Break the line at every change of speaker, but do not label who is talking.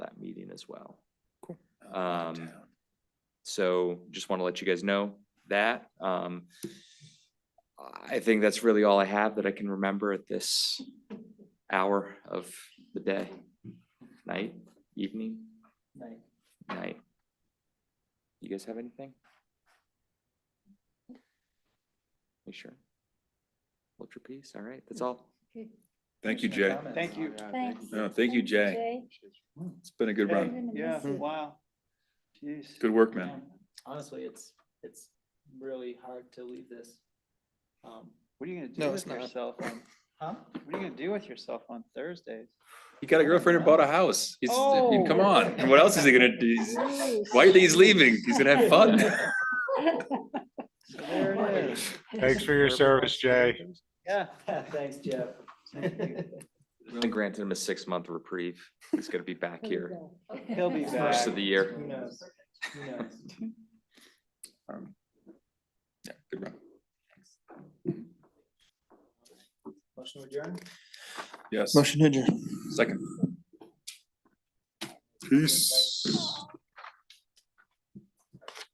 as well.
Oh, out of
Um,
town.
So just want to let you guys know that. Um, I think that's really all I have that I can remember at this hour of the day, night, evening, night. You guys have anything? You sure? Hold your peace. All right, that's all.
Thank you, Jay.
Thank you.
Thanks.
No, thank you, Jay. It's been a good
Hey,
run.
Yeah,
Hmm.
wow. Jeez.
Good work, man.
Honestly, it's, it's really hard to leave this. Um,
What are you gonna
No,
do
it's
with
not.
yourself on,
Huh?
what are you gonna do with yourself on Thursdays?
He got a girlfriend and bought a house. He's, I mean, come
Oh.
on. And what else is he gonna do? He's- Why you think he's leaving? He's gonna have fun.
So there it is.
Thanks for your service, Jay.
Yeah.
Thanks, Jeff.
We only granted him a six-month reprieve. He's gonna be back here.
He'll be back.
First of the year.
Who knows? Who knows?
Um, yeah, Good run.
Motion adjourned?
Yes.
Motion adjourned.
Second. Peace.